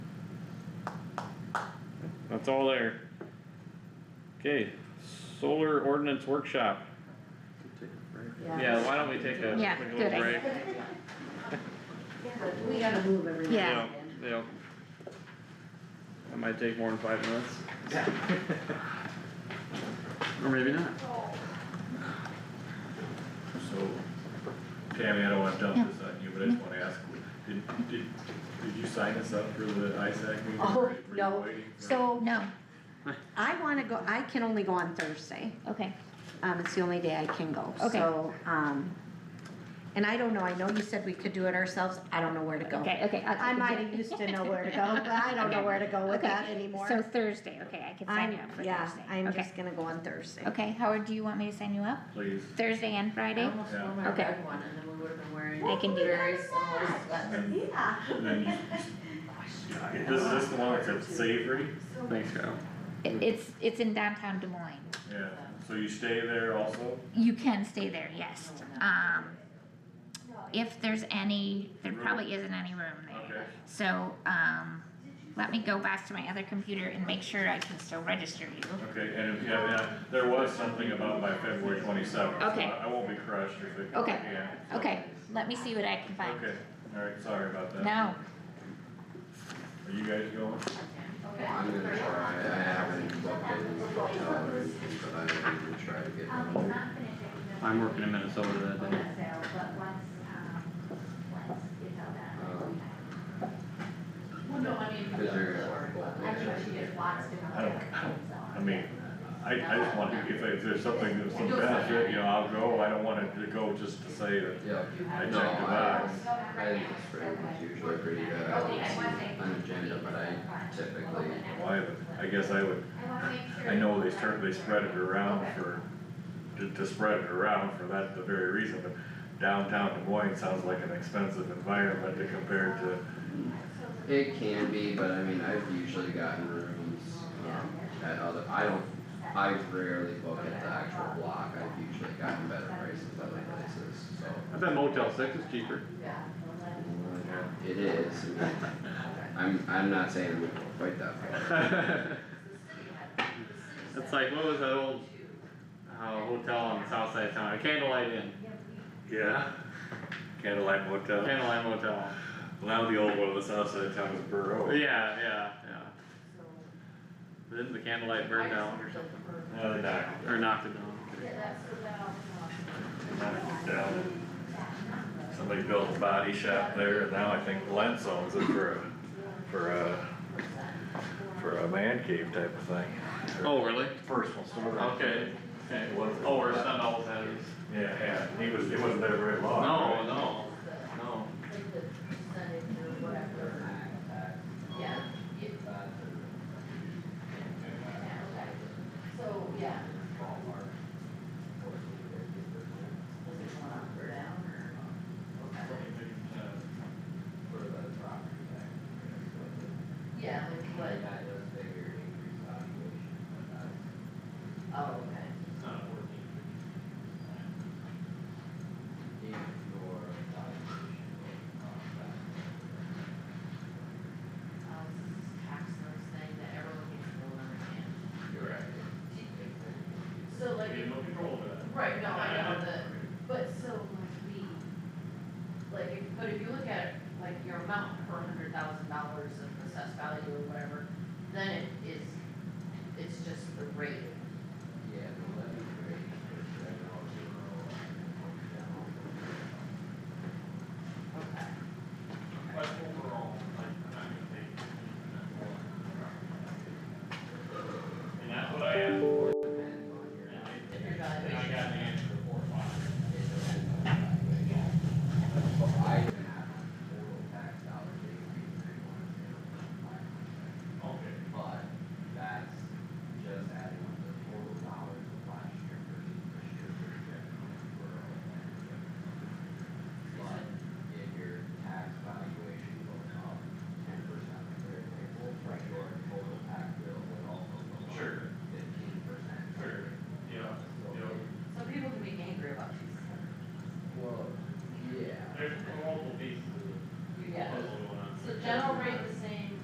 That's all there. Okay, solar ordinance workshop. Take a break. Yeah, why don't we take a, Yeah, take a good little break? idea. We gotta move everything. Yeah. Yeah. That might take more than five minutes. Or maybe not. So, Tammy, I don't wanna dump this on you, but I just wanna ask, did, did, did you sign us up for the ISAC meeting? Oh, Were you no. waiting for- So No, I wanna go, I can only go on Thursday, okay, um, it's the only day I can go, Okay. so, um, and I don't know, I know you said we could do it ourselves, I don't know where to go. okay, okay. I'll- I might've used to know where to go, but I don't know Okay. where to go with Okay. that anymore. So Thursday, okay, I can sign I'm, you up for Thursday. yeah, I'm Okay. just gonna go on Thursday. Okay, Howard, do you want me to sign you up? Please. Thursday and Friday? almost Yeah. wore my Okay. red one, and then we would've been wearing I can do very similar sweats. And then you- This, this the one that's savory, Thanks, Kyle. It- It's, it's in downtown Des Moines. yeah, so you stay there also? You can stay there, yes. Um, if there's any, there probably isn't any room there. Okay, So, um, let me go back to my other computer and make sure I can still register you. okay, and if, yeah, yeah, there was something about by February twenty-seventh, so Okay. I I won't be crushed if it, Okay. yeah. so- Okay, let me see what I can find. Okay, alright, sorry about that. No, Are you guys going? I'm gonna try, I haven't looked at the hotel or anything, but I am gonna try to get one. I'm working in Minnesota that day. Um, Well, no, I mean. Is there a- I think she just wants to. I don't- I mean, I, I just want, to if, if there's something, that's some benefit, you know, I'll go, I don't want to go just to say that Yeah, I checked no, the I, box. I think the spring is usually pretty good, I don't see an agenda, but I typically, Well, I, I guess I would, I know they start, they spread it around for, to, to spread it around for that, the very reason, but downtown Des Moines sounds like an expensive environment to compare to, it can be, but I mean, I've usually gotten rooms, um, at other, I don't, I rarely look at the actual block, I've usually gotten better prices other places, so. I bet Motel Six is cheaper. It is, I'm, I'm not saying we go quite that far, It's like, what was that old, uh, hotel on the south side of town, Candlelight Inn, yeah, Candlelight Motel. Candlelight Motel, Now the old one on the south side of town is yeah, Burrow. yeah, yeah. Didn't the Candlelight burn down or something, Uh, no, or knocked it down? knocked it down. uh, Somebody built a body shop there, and now I think Lentz owns it for, a- for a, for a man cave type of thing. Oh, really? Personal store. Okay, okay, oh, we're not all Saturdays, Yeah, yeah, he was, he wasn't there very long. no, right? no, no. Yeah. So, yeah. Was it going up or down or? Yeah, like what? Oh, okay. I'll tax those things that everyone gets to understand. You're right. So like. You don't control that. Right, no, I know that, but so like we, like, if- but if you look at like your amount per hundred thousand dollars of assessed value or whatever, then it is, it's just the rate